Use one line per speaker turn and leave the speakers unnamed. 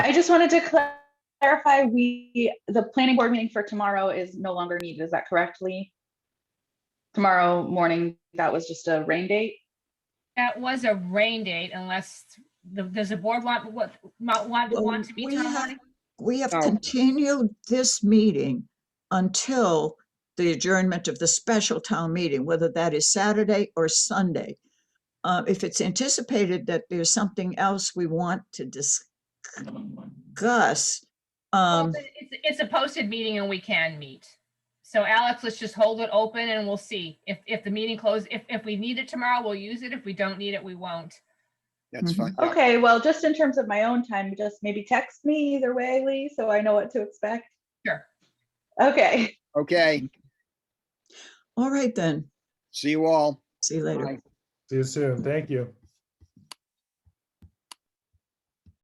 I just wanted to cla- clarify, we, the planning board meeting for tomorrow is no longer needed, is that correctly? Tomorrow morning, that was just a rain date?
That was a rain date unless, the- does the board want, what, want, want-
Well,
want to meet
we
tomorrow
have-
morning?
We have
Oh.
continued this meeting until the adjournment of the special town meeting, whether that is Saturday or Sunday. Uh, if it's anticipated that there's something else we want to discuss,
Well,
um,
It's, it's a posted meeting and we can meet. So Alex, let's just hold it open and we'll see. If, if the meeting closes, if, if we need it tomorrow, we'll use it. If we don't need it, we won't.
That's
Mhm.
fine. yeah.
Okay, well, just in terms of my own time, just maybe text me either way, Lee, so I know what to expect.
Sure.
Okay,
Okay,
all right then,
see you all.
see you later.
Bye.
See you soon. Thank you.